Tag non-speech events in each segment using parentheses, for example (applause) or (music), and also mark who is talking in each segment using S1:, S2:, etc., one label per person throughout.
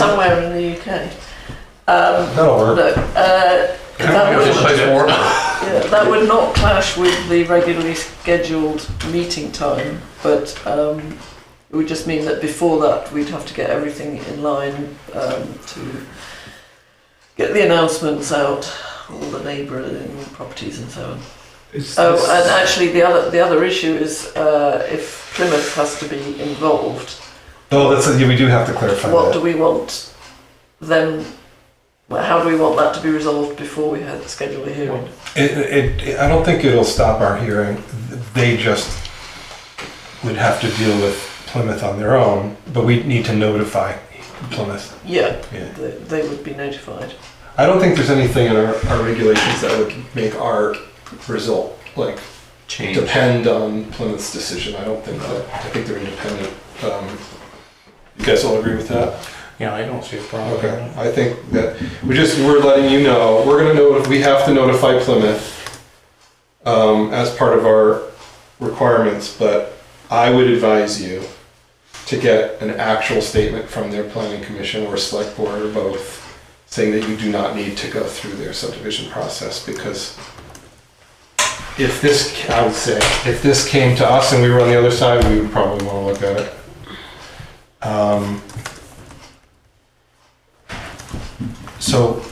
S1: somewhere in the UK. Um,
S2: That'll work.
S1: look, uh, that
S3: It's
S1: would,
S3: just more.
S1: yeah, that would not clash with the regularly scheduled meeting time, but um, it would just mean that before that we'd have to get everything in line um, to get the announcements out, all the neighbouring properties and so on.
S4: Is
S1: Oh,
S4: this-
S1: and actually, the other the other issue is uh, if Plymouth has to be involved,
S2: No, that's, yeah, we do have to clarify
S1: what do
S2: that.
S1: we want then? well, How do we want that to be resolved before we had schedule a hearing?
S2: It, it, it- I don't think it'll stop our hearing. They just would have to deal with Plymouth on their own, but we need to notify Plymouth.
S1: Yeah,
S2: Yeah.
S1: they, they would be notified.
S2: I don't think there's anything in our, our regulations that would make our result like
S3: Change.
S2: depend on Plymouth's decision. I don't think that. I think they're independent. Um, you guys all agree with that?
S4: Yeah, I don't see a problem. with
S2: Okay.
S4: that.
S2: I think that we just we're letting you know we're gonna know we have to notify Plymouth um, as part of our requirements, but I would advise you to get an actual statement from their planning commission or select board or both saying that you do not need to go through their subdivision process because if this, I would say, if this came to us and we were on the other side, we would probably want to look at it. Um, so,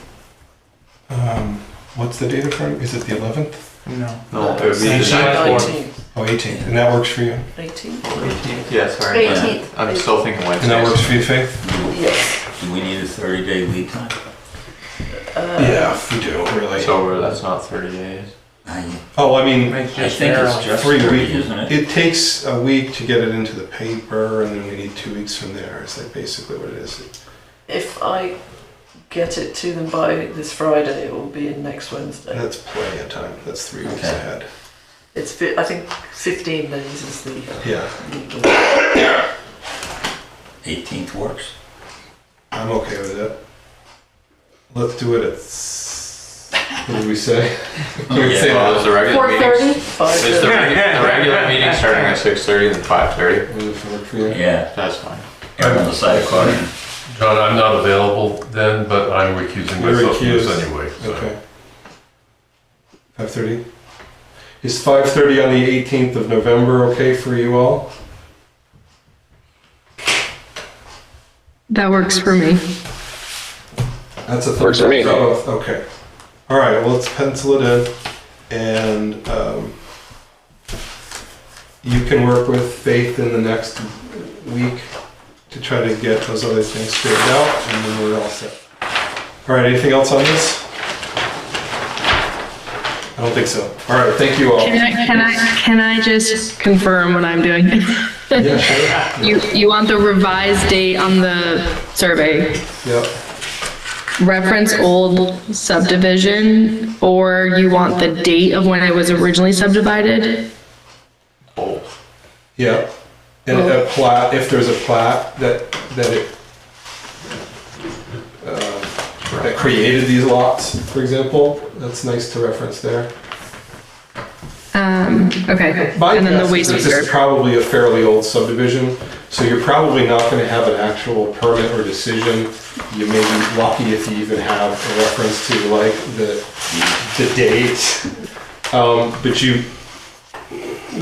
S2: um, what's the date of Friday? Is it the 11th?
S4: No.
S3: No, Oh, it would be the
S4: Sanction.
S3: ninth one.
S1: Nineteenth,
S2: Oh, 18th. And that works for you?
S1: eighteenth,
S3: Eighteenth? Yeah, sorry.
S5: Eighteenth.
S3: Yeah. I'm still thinking
S2: And that works
S3: Wednesday.
S2: for you, Faith?
S1: yes.
S5: Do we need a thirty day lead time?
S1: Uh,
S2: we do, really.
S3: So we're- that's not thirty days.
S5: I
S2: Oh, I mean,
S4: Makes
S5: I
S4: just
S5: think
S4: narrow.
S5: it's just
S2: Three
S5: thirty,
S2: weeks.
S5: isn't it?
S2: It takes a week to get it into the paper, and then we need two weeks from there. Is that basically what it is?
S1: If I get it to them by this Friday, it will be in next Wednesday.
S2: That's plenty of time. That's three weeks
S5: Okay.
S2: ahead.
S1: It's fi- I think fifteen days is the
S2: Yeah,
S1: legal.
S5: Eighteenth works.
S2: I'm okay with it. Let's do it at. s- What did we say? (laughs) Can we say
S3: Well,
S2: that?
S3: Is the regular
S6: Four
S3: meeting,
S6: thirty?
S1: Five
S3: is the
S1: days.
S2: (laughs)
S3: regu- the regular meeting starting at six thirty and five thirty?
S2: Would it work for you?
S5: Yeah,
S3: That's fine.
S5: err on the side of caution.
S7: John, I'm not available then, but I'm recusing
S2: You're
S7: myself from
S2: recused.
S7: this anyway, so.
S2: Okay. Five thirty. Is five thirty on the eighteenth of November okay for you all?
S8: That works for me.
S2: That's a Works for me. Okay. All right, well, let's pencil it in and, um, you can work with Faith in the next week to try to get those other things figured out and then we're all set. All right, anything else on this? I don't think so. All right, thank you all.
S8: Can I, can I, can I just confirm what I'm doing? (laughs)
S2: Yeah, sure.
S8: You, you want the revised date on the survey,
S2: Yep.
S8: reference old subdivision, or you want the date of when it was originally subdivided?
S3: Oh,
S2: Yeah, and
S8: Oh.
S2: a plat, if there's a plat that, that it, uh, that created these lots, for example, that's nice to reference there.
S8: Um, okay,
S2: My
S8: and then
S2: guess
S8: the
S2: is
S8: waste
S2: This is
S8: reserve.
S2: probably a fairly old subdivision, so you're probably not gonna have an actual permit or decision. You may be lucky if you even have a reference to like the, the date. Um, but you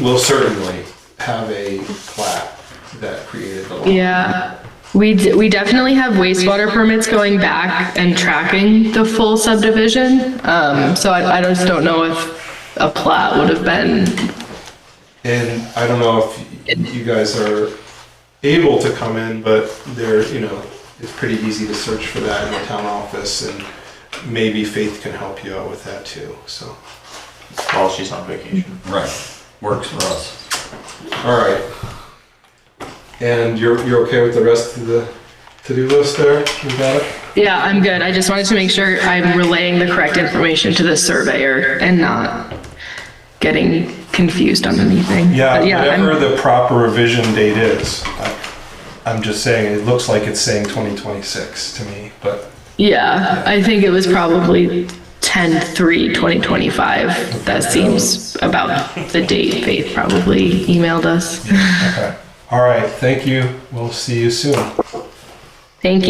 S2: will certainly have a plat that created the lot.
S8: Yeah, we, d- we definitely have wastewater permits going back and tracking the full subdivision. Um, so I, I just don't know if a plat would have been
S2: And I don't know if you guys are able to come in, but there, you know, it's pretty easy to search for that in the town office and maybe Faith can help you out with that too, so.
S3: well, she's on vacation.
S5: Right, works for us.
S2: All right. And you're, you're okay with the rest of the to-do list there? You got it?
S8: Yeah, I'm good. I just wanted to make sure I'm relaying the correct information to the surveyor and not getting confused on anything. But Uh, Yeah,
S2: Whatever
S8: I'm-
S2: the proper revision date is, I- I'm just saying, it looks like it's saying 2026 to me, but
S8: yeah, I think it was probably 10/3/2025. That seems about the date Faith probably emailed us.
S2: okay. All right, thank you. We'll see you soon.
S8: Thank you.